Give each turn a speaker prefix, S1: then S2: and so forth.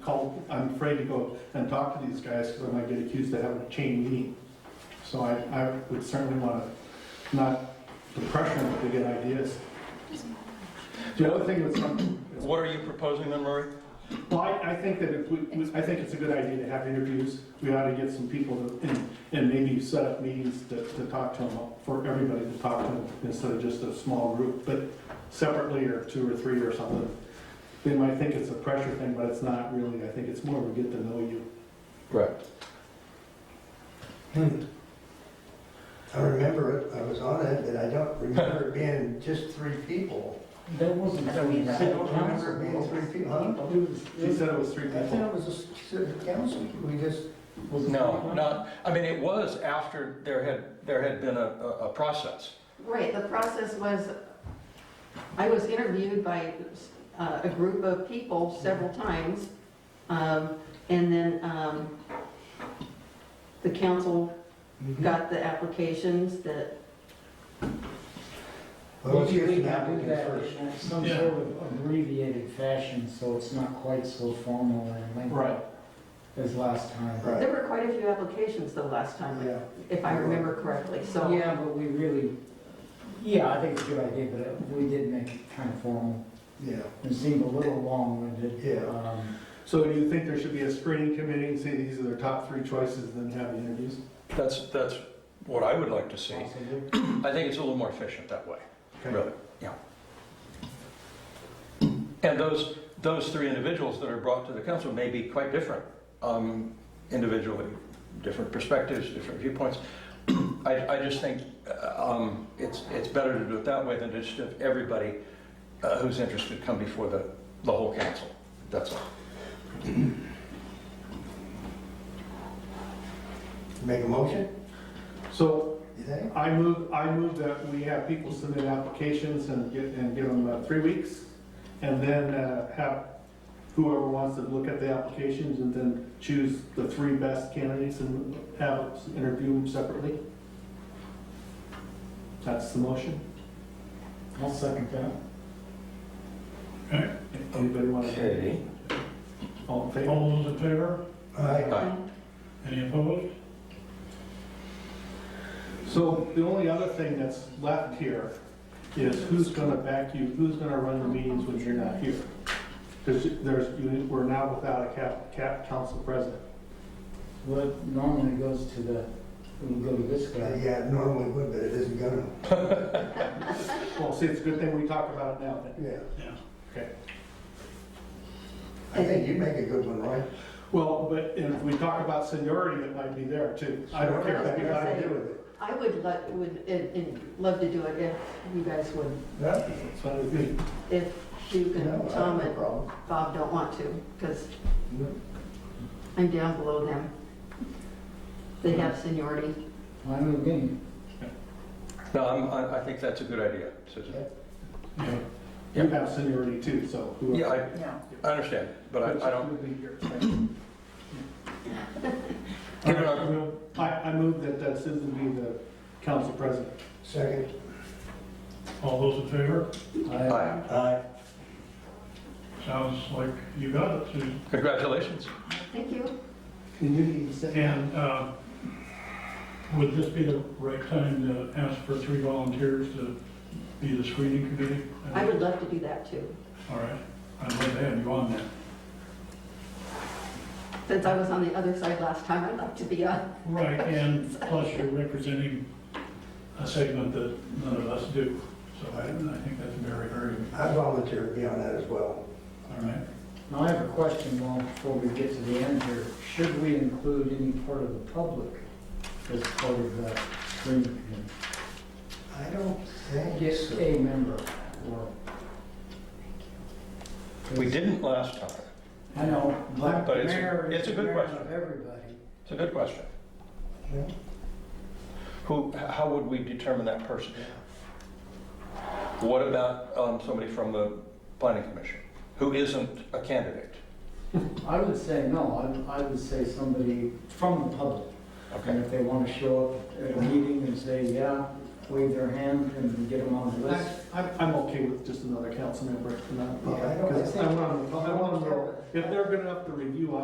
S1: I'll, I'm afraid to go and talk to these guys because I might get accused of having a chain meeting. So I, I would certainly want to not depression them to get ideas. The other thing that's,
S2: What are you proposing then, Murray?
S1: well, I, I think that if we, I think it's a good idea to have interviews. We ought to get some people to, and, and maybe set up meetings to, to talk to them, for everybody to talk to them instead of just a small group, but separately or two or three or something. They might think it's a pressure thing, but it's not really. I think it's more of a get to know you.
S2: Correct.
S3: Hmm. I remember it, I was on it, but I don't remember it being just three people.
S4: That wasn't.
S3: I don't remember it being
S4: It
S3: three people.
S4: was-
S1: She said it was three
S3: I thought
S1: people.
S3: it was a city council, we just,
S4: was it
S2: No,
S4: three?
S2: not, I mean, it was after there had, there had been a, a a process.
S5: Right, the process was, I was interviewed by uh, a group of people several times, um, and then um, the council got the applications that,
S3: well, let's get
S4: Usually we
S3: an
S4: do
S3: applicant
S4: that
S3: first.
S4: in Some
S1: Yeah.
S4: sort of abbreviated fashion, so it's not quite so formal and lengthy
S1: Right.
S4: as last time.
S3: Right,
S5: there were quite a few applications though last time,
S3: yeah.
S5: if I remember correctly, so.
S4: Yeah, but we really, yeah, I think it's a good idea, but it- we did make it kind of formal.
S3: Yeah,
S4: It seemed a little long-winded.
S3: Yeah.
S4: Um,
S1: So do you think there should be a screening committee and say these are their top three choices and then have the interviews?
S2: That's, that's what I would like to see.
S4: possibly.
S2: I think it's a little more efficient that way,
S1: Okay.
S2: really, yeah. And those, those three individuals that are brought to the council may be quite different um, individually, different perspectives, different viewpoints. I, I just think uh, um, it's, it's better to do it that way than just have everybody uh, who's interested come before the, the whole council. That's all.
S3: make a motion,
S1: So
S3: you think?
S1: I move, I move that we have people submit applications and get, and give them uh, three weeks. And then uh, have whoever wants to look at the applications and then choose the three best candidates and have, us interview them separately. That's the motion.
S4: I'll second that.
S1: Anybody want to? All in favor?
S6: All those in favor?
S3: All right,
S2: Aye.
S6: Any opposed?
S1: So the only other thing that's left here is who's gonna back you, who's gonna run the meetings when you're not here? Because there's, you- we're now without a cap, cap council president.
S4: Well, it normally goes to the, it would go to this
S3: Uh,
S4: guy.
S3: yeah, it normally would, but it isn't gonna,
S1: Well, see, it's a good thing we talk about it now.
S3: yeah.
S6: Yeah.
S1: Okay.
S3: I think you make a good one, right?
S1: Well, but if we talk about seniority, it might be there too. I don't care.
S3: I got nothing to do with it.
S5: I would let, would, and- and love to do it if you guys would,
S3: No,
S1: It's fine with me.
S5: if you
S3: no, I
S5: and
S3: have
S5: Tom
S3: no
S5: and
S3: problem.
S5: Bob don't want to, because
S3: No.
S5: I'm down below them. They have seniority.
S4: I'm again,
S2: No, I'm- I, I think that's a good idea, Susan.
S1: You have seniority too, so. whoever-
S2: Yeah, I- I understand, but I I don't,
S1: Who'll be here?
S2: Give it
S1: All right,
S2: up.
S1: I move- I, I move that uh, Susan be the council president.
S3: Second,
S6: All those in favor?
S2: aye.
S3: aye.
S6: Sounds like you got it, Susan.
S2: Congratulations.
S5: Thank you.
S1: And you need to sit down.
S6: And uh, would this be the right time to ask for three volunteers to be the screening committee?
S5: I would love to do that too.
S6: All right, I'd love to have you on that.
S5: Since I was on the other side last time, I'd like to be on.
S6: Right, and plus you're representing a segment that none of us do. So I I think that's very, very,
S3: I volunteer to be on that as well.
S6: all right.
S4: now I have a question, well, before we get to the end here. Should we include any part of the public as part of the screening committee?
S3: I don't think
S4: Just
S3: so.
S4: a member or?
S2: We didn't last time.
S4: I know, but
S2: But
S4: the
S2: it's a-
S4: mayor is
S2: it's
S4: the
S2: a good
S4: mayor
S2: question.
S4: of everybody.
S2: It's a good question.
S3: Yeah.
S2: Who, how would we determine that person? What about um, somebody from the planning commission who isn't a candidate?
S4: I would say no, I, I would say somebody from the public. And
S2: Okay,
S4: if they want to show up at a meeting and say, yeah, wave their hand and get them on the list.
S1: I'm, I'm okay with just another council member for that.
S3: Yeah, I don't- I
S1: Because
S3: think-
S1: I want them, I want them, to- if they're good enough to review,